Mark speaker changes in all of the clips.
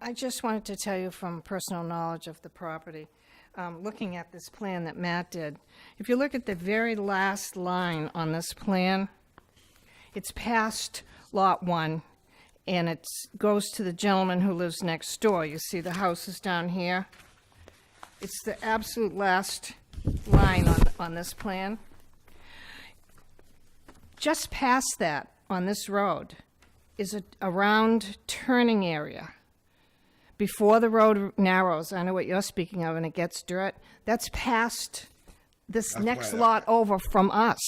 Speaker 1: I just wanted to tell you from personal knowledge of the property, um, looking at this plan that Matt did, if you look at the very last line on this plan, it's past Lot 1, and it goes to the gentleman who lives next door. You see the house is down here. It's the absolute last line on, on this plan. Just past that, on this road, is a, a round turning area. Before the road narrows, I know what you're speaking of, and it gets dirt, that's past this
Speaker 2: That's
Speaker 1: next
Speaker 2: right.
Speaker 1: lot over from us.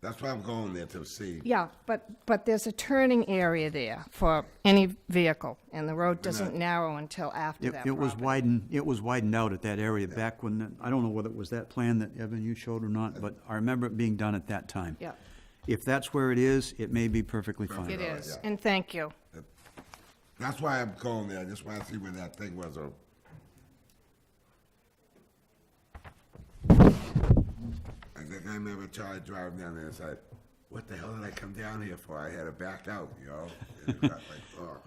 Speaker 2: That's why I'm going there to see.
Speaker 1: Yeah, but, but there's a turning area there for any vehicle, and the road doesn't narrow until after
Speaker 3: It,
Speaker 1: that
Speaker 3: it was
Speaker 1: property.
Speaker 3: widened, it was widened out at that area back when, the- I don't know whether it was that plan that Evan you showed or not, but I remember it being done at that time.
Speaker 1: Yeah.
Speaker 3: If that's where it is, it may be perfectly
Speaker 1: It
Speaker 3: fine.
Speaker 1: is, and thank you.
Speaker 2: That's why I'm going there. I just want to see where that thing was. uh, I think I remember Charlie driving down there and said, what the hell did I come down here for? I had to back out, you know? And it was like, oh.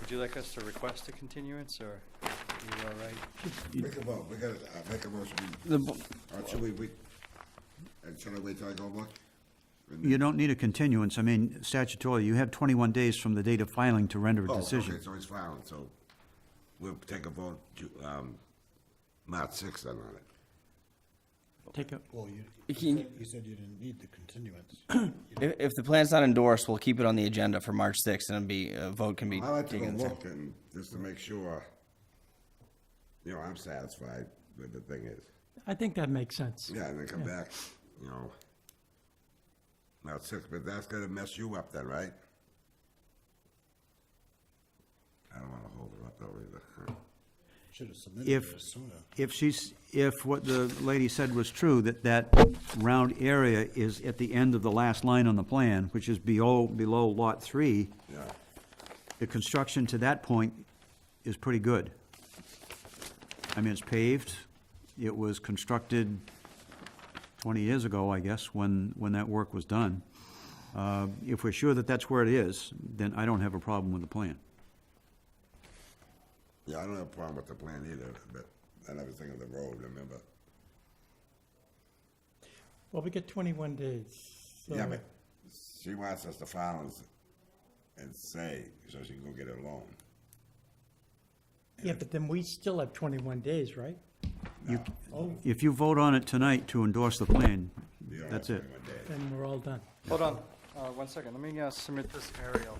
Speaker 4: Would you like us to request a continuance, or are you all right?
Speaker 2: Make a vote, we gotta, uh, make a motion.
Speaker 5: The bo-
Speaker 2: Or should we, we, and should I wait till I go look? And-
Speaker 3: You don't need a continuance, I mean statutorily, you have twenty-one days from the date of filing to render a
Speaker 2: Oh,
Speaker 3: decision.
Speaker 2: Okay, so it's filed, so we'll take a vote, Ju- um, March sixth then on it.
Speaker 3: Take a,
Speaker 6: Well, you,
Speaker 5: You
Speaker 6: you
Speaker 5: can-
Speaker 6: said- you said you didn't need the continuance. You
Speaker 5: If, if the plan's not endorsed, we'll keep it on the agenda for March sixth, and it'll be, a vote can be
Speaker 2: I like to go
Speaker 5: taken. at the same-
Speaker 2: look and just to make sure, you know, I'm satisfied with the thing is.
Speaker 7: I think that makes sense.
Speaker 2: Yeah, and then come back, you know. Now six, but that's gonna mess you up then, right? I don't wanna hold her up though either.
Speaker 6: Should have submitted
Speaker 3: if,
Speaker 6: it sooner.
Speaker 3: if she's, if what the lady said was true, that that round area is at the end of the last line on the plan, which is below, below lot three,
Speaker 2: Yeah,
Speaker 3: the construction to that point is pretty good. I mean, it's paved, it was constructed twenty years ago, I guess, when, when that work was done. Uh, If we're sure that that's where it is, then I don't have a problem with the plan.
Speaker 2: yeah, I don't have a problem with the plan either, but I never think of the road, remember?
Speaker 7: Well, we get 21 days. so-
Speaker 2: Yeah, but she wants us to file and, s- and say, so she can go get a loan.
Speaker 7: Yeah, but then we still have 21 days, right?
Speaker 3: If you vote on it tonight to endorse the plan,
Speaker 2: You don't have
Speaker 3: that's it.
Speaker 2: 21 days.
Speaker 7: Then we're all done.
Speaker 4: Hold on, uh, one second, let me, uh, submit this aerial.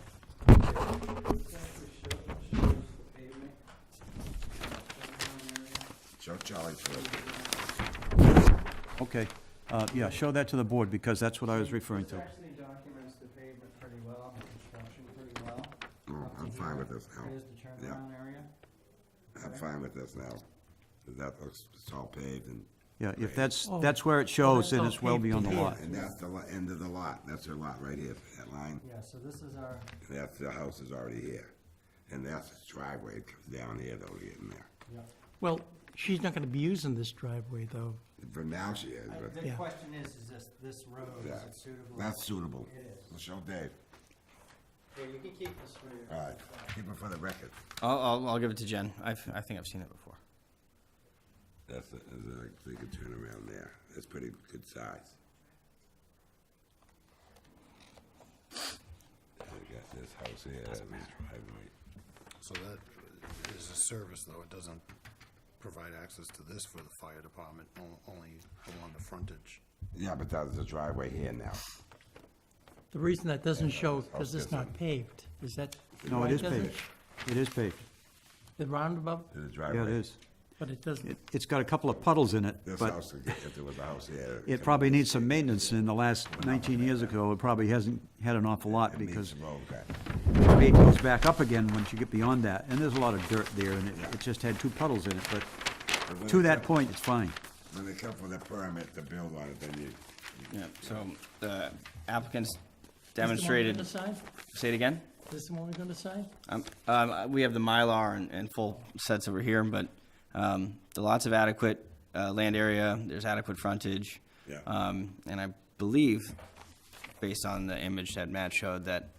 Speaker 2: Show Charlie first.
Speaker 3: Okay, Uh, yeah, show that to the board, because that's what I was referring to.
Speaker 4: actually documents the pavement pretty well, the construction pretty well.
Speaker 2: Oh, I'm fine with this now.
Speaker 4: Here's the
Speaker 2: Yeah.
Speaker 4: turnaround area.
Speaker 2: I'm fine with this now. That looks, it's all paved and,
Speaker 3: Yeah, if that's, that's where it shows, then Oh. it's well beyond the lot.
Speaker 2: and that's the lo- end of the lot. That's her lot right here, that line.
Speaker 4: Yeah, so this is our,
Speaker 2: And that's, the house is already here. And that's the driveway that comes down here though, getting there.
Speaker 7: Well, she's not going to be using this driveway, though.
Speaker 2: For now she is, but
Speaker 7: Yeah.
Speaker 8: The question is, is this, this road,
Speaker 2: yeah,
Speaker 8: is it suitable?
Speaker 2: that's suitable.
Speaker 8: It is.
Speaker 2: We'll show Dave.
Speaker 8: Yeah, you can keep this for your.
Speaker 2: All right, keep it for the record.
Speaker 5: I'll, I'll, I'll give it to Jen. I've, I think I've seen it before.
Speaker 2: That's, a- that's a, they could turn around there. That's pretty good size. I got this house here, that's the driveway.
Speaker 6: So that is a service, though. It doesn't provide access to this for the fire department, o- only along the frontage.
Speaker 2: Yeah, but that's the driveway here now.
Speaker 7: The reason that doesn't show, because it's not paved, is that?
Speaker 3: No,
Speaker 7: why
Speaker 3: it is
Speaker 7: doesn't-
Speaker 3: paved. It is paved.
Speaker 7: The roundabout,
Speaker 2: There's a
Speaker 3: Yeah,
Speaker 2: driveway.
Speaker 3: it is.
Speaker 7: but it doesn't,
Speaker 3: It, it's got a couple of puddles in it,
Speaker 2: This
Speaker 3: but
Speaker 2: house, if there was a house here.
Speaker 3: it probably needs some maintenance. In the last nineteen years ago, it probably hasn't had an awful lot
Speaker 2: It needs
Speaker 3: because
Speaker 2: some road cut.
Speaker 3: it goes back up again once you get beyond that. And there's a lot of dirt there and it, it just had two puddles in it,
Speaker 2: But
Speaker 3: but
Speaker 2: when
Speaker 3: to
Speaker 2: it
Speaker 3: that
Speaker 2: come-
Speaker 3: point, it's fine.
Speaker 2: When they come for the permit to build on it, then you,
Speaker 5: Yeah, so the applicants
Speaker 7: Is the one we're
Speaker 5: demonstrated,
Speaker 7: gonna sign?
Speaker 5: say it again?
Speaker 7: this the one we're going to sign?
Speaker 5: Um, um, we have the Mylar and, and full sets over here, but, um, the lots of adequate, uh, land area, there's adequate frontage.
Speaker 2: Yeah.
Speaker 5: Um, and I believe, based on the image that Matt showed, that